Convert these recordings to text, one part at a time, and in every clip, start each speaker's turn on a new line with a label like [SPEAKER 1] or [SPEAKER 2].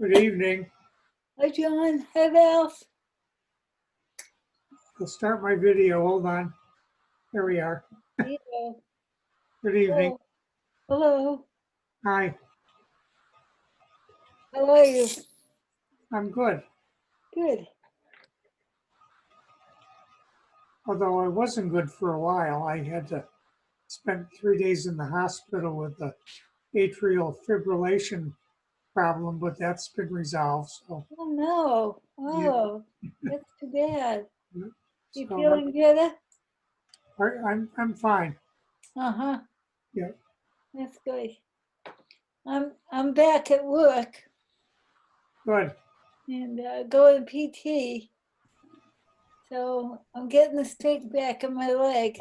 [SPEAKER 1] Good evening.
[SPEAKER 2] Hi, John. Hi, Ralph.
[SPEAKER 1] I'll start my video. Hold on. Here we are.
[SPEAKER 2] Hello.
[SPEAKER 1] Good evening.
[SPEAKER 2] Hello.
[SPEAKER 1] Hi,
[SPEAKER 2] How are you?
[SPEAKER 1] I'm good.
[SPEAKER 2] Good.
[SPEAKER 1] Although I wasn't good for a while. I had to spend three days in the hospital with the atrial fibrillation problem, but that's been resolved. So,
[SPEAKER 2] Oh, no. Oh, that's too bad.
[SPEAKER 1] Yeah.
[SPEAKER 2] You
[SPEAKER 1] So,
[SPEAKER 2] feeling better?
[SPEAKER 1] I- I'm, I'm fine.
[SPEAKER 2] Uh-huh.
[SPEAKER 1] Yeah.
[SPEAKER 2] That's good. I'm, I'm back at work
[SPEAKER 1] Good.
[SPEAKER 2] and uh, going PT. So I'm getting the strength back in my leg.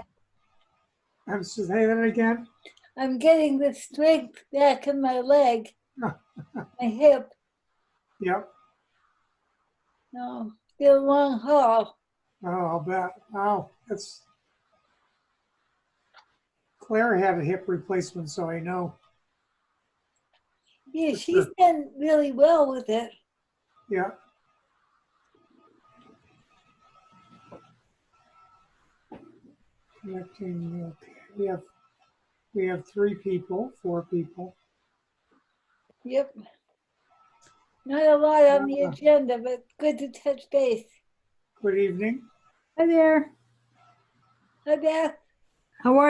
[SPEAKER 1] I'm, say that again?
[SPEAKER 2] I'm getting the strength back in my leg, my hip.
[SPEAKER 1] Yep.
[SPEAKER 2] No, still a long haul.
[SPEAKER 1] Oh, I'll bet. Oh, that's. Claire had a hip replacement, so I know.
[SPEAKER 2] Yeah,
[SPEAKER 1] For
[SPEAKER 2] she's done really well with it.
[SPEAKER 1] Yeah. Connecting, okay, we have, we have three people, four people.
[SPEAKER 2] Yep. Not a lot on the
[SPEAKER 1] Yeah.
[SPEAKER 2] agenda, but good to touch base.
[SPEAKER 1] Good evening.
[SPEAKER 3] Hi there.
[SPEAKER 2] Hi, Beth.
[SPEAKER 3] How are you?